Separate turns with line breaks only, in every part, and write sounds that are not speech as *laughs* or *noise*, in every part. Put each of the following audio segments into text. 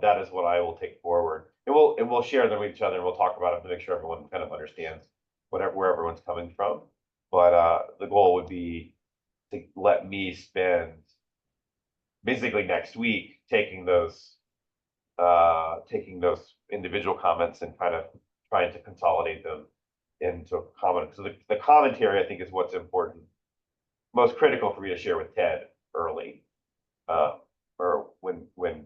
that is what I will take forward. And we'll, and we'll share them with each other and we'll talk about it to make sure everyone kind of understands whatever, where everyone's coming from. But, uh, the goal would be to let me spend basically next week, taking those, uh, taking those individual comments and kind of trying to consolidate them into a comment. So the, the commentary, I think, is what's important, most critical for me to share with Ted early. Uh, or when, when,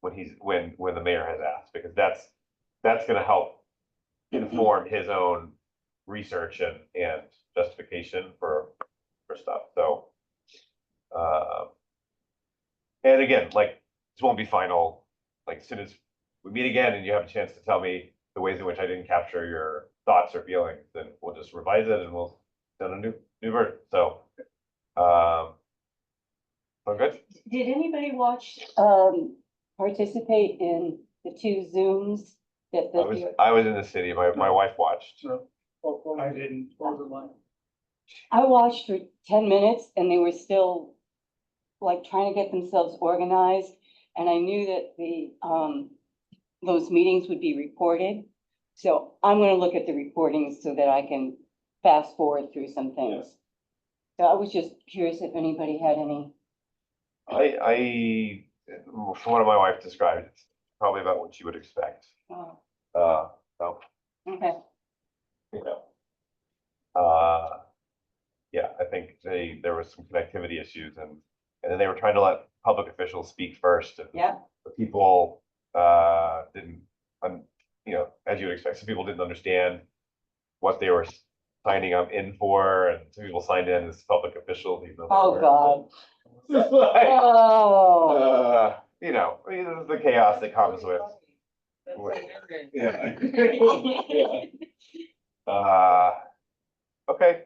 when he's, when, when the mayor has asked, because that's, that's gonna help inform his own research and, and justification for, for stuff, so. Uh, and again, like, this won't be final, like, as soon as we meet again and you have a chance to tell me the ways in which I didn't capture your thoughts or feelings, then we'll just revise it and we'll send a new, new version, so. Um. Sound good?
Did anybody watch, um, participate in the two Zooms that
I was,
the,
I was in the city, my, my wife watched.
I didn't.
I watched for ten minutes and they were still like trying to get themselves organized. And I knew that the, um, those meetings would be recorded. So I'm gonna look at the recordings so that I can fast forward through some things. So I was just curious if anybody had any,
I, I, from what my wife described, it's probably about what you would expect,
oh,
uh, so,
okay,
you know. Uh, yeah, I think they, there was some connectivity issues and, and then they were trying to let public officials speak first and
yeah,
the people uh didn't, um, you know, as you would expect, some people didn't understand what they were signing up in for, and some people signed in as public officials. even though they
oh,
weren't.
God.
It's *laughs* like,
Oh.
uh, You know, I mean, this is the chaos that comes with. with- Yeah. Uh, okay.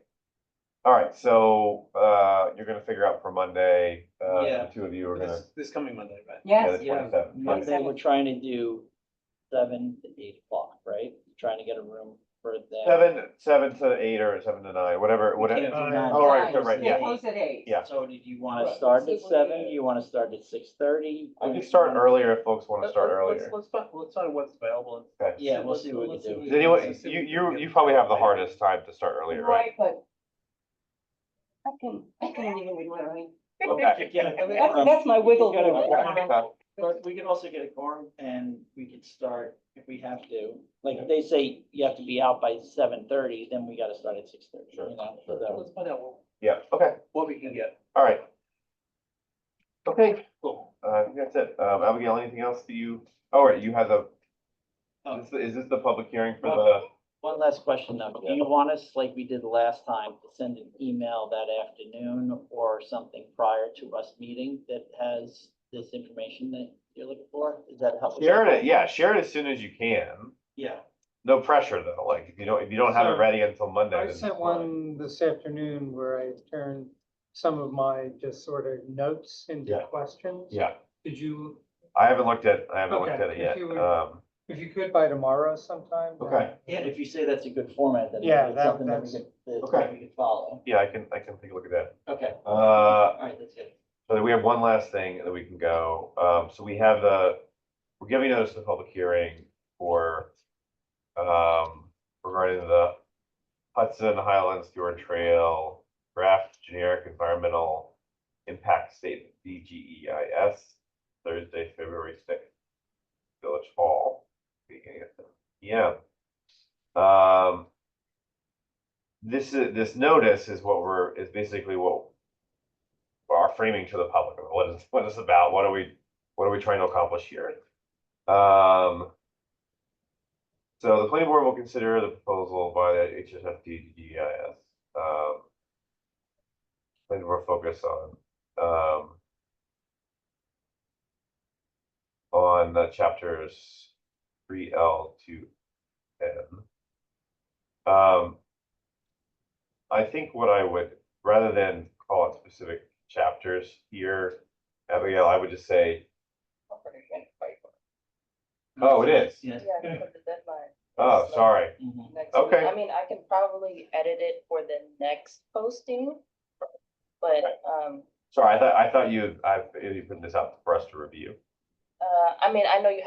All right, so uh you're gonna figure out for Monday, uh
Yeah.
the two of you are gonna.
This, this coming Monday, right?
yeah,
Yes,
the
yeah.
27th.
Monday, we're trying to do seven to eight o'clock, right? Trying to get a room for that.
Seven, seven to eight or seven to nine, whatever,
We can't
whatever.
do
Uh,
nine.
Oh, right, right, yeah.
close at eight.
Yeah.
So did you wanna
Right.
start
See
at
what
seven?
we-
Do you wanna start at six thirty?
I can start
*laughs*
earlier if folks wanna start earlier.
Let's, let's, let's find what's available.
Okay.
Yeah, we'll see what we can
Does
do.
anyone, you, you, you probably have the hardest time to start earlier, right?
but. I can, I can leave it alone.
*laughs*
Okay.
That's, that's my wiggle
You gotta-
room.
But we can also get a quorum and we could start if we have to. Like, if they say you have to be out by seven thirty, then we gotta start at six thirty, you
Sure,
know?
sure.
So-
Let's find out what,
Yeah, okay,
what we can get.
all right. Okay,
Cool.
uh, I think that's it. Um, Abigail, anything else that you, oh, right, you have a,
Oh.
Um,
is, is this the public hearing for the,
One last question though. Do you want us, like we did the last time, to send an email that afternoon or something prior to us meeting that has this information that you're looking for? Is that helpful?
share it, yeah, share it as soon as you can.
Yeah,
No pressure though, like, if you don't, if you don't have it
So,
ready until Monday.
I
then it's
sent
fine.
one this afternoon where I turned some of my just sort of notes into
Yeah.
questions.
Yeah,
Did you,
I haven't looked at, I haven't
Okay,
looked at it
if
yet.
you would-
Um,
if you could by tomorrow sometime? then-
okay,
Yeah, if you say that's a good format, then
Yeah,
it's
that-
something that we
that's-
could, that
Okay.
we could follow.
yeah, I can, I can take a look at that.
Okay,
Uh,
all right, that's good.
So we have one last thing that we can go. Um, so we have the, we're giving notice of the public hearing for, um, regarding the Hudson Highlands Stewart Trail draft generic environmental impact statement, DGEIS, Thursday, February sixth, Village Hall, beginning at seven PM. Um, this is, this notice is what we're, is basically what our framing to the public, of what is, *laughs* what is about, what are we, what are we trying to accomplish here? Um. So the planning board will consider the proposal by the HSFD DEIS. E Um. Planning board focus on, um. On the chapters three L to N. Um. I think what I would, rather than call it specific chapters here, Abigail, I would just say, Oh, it is?
Yes.
Yeah, for the deadline.
oh,
So,
sorry.
Mhm.
next week.
Okay.
I mean, I can probably edit it for the next posting. But, um,
Sorry, I thought, I thought you, I, you put this out for us to review.
uh, I mean, I know you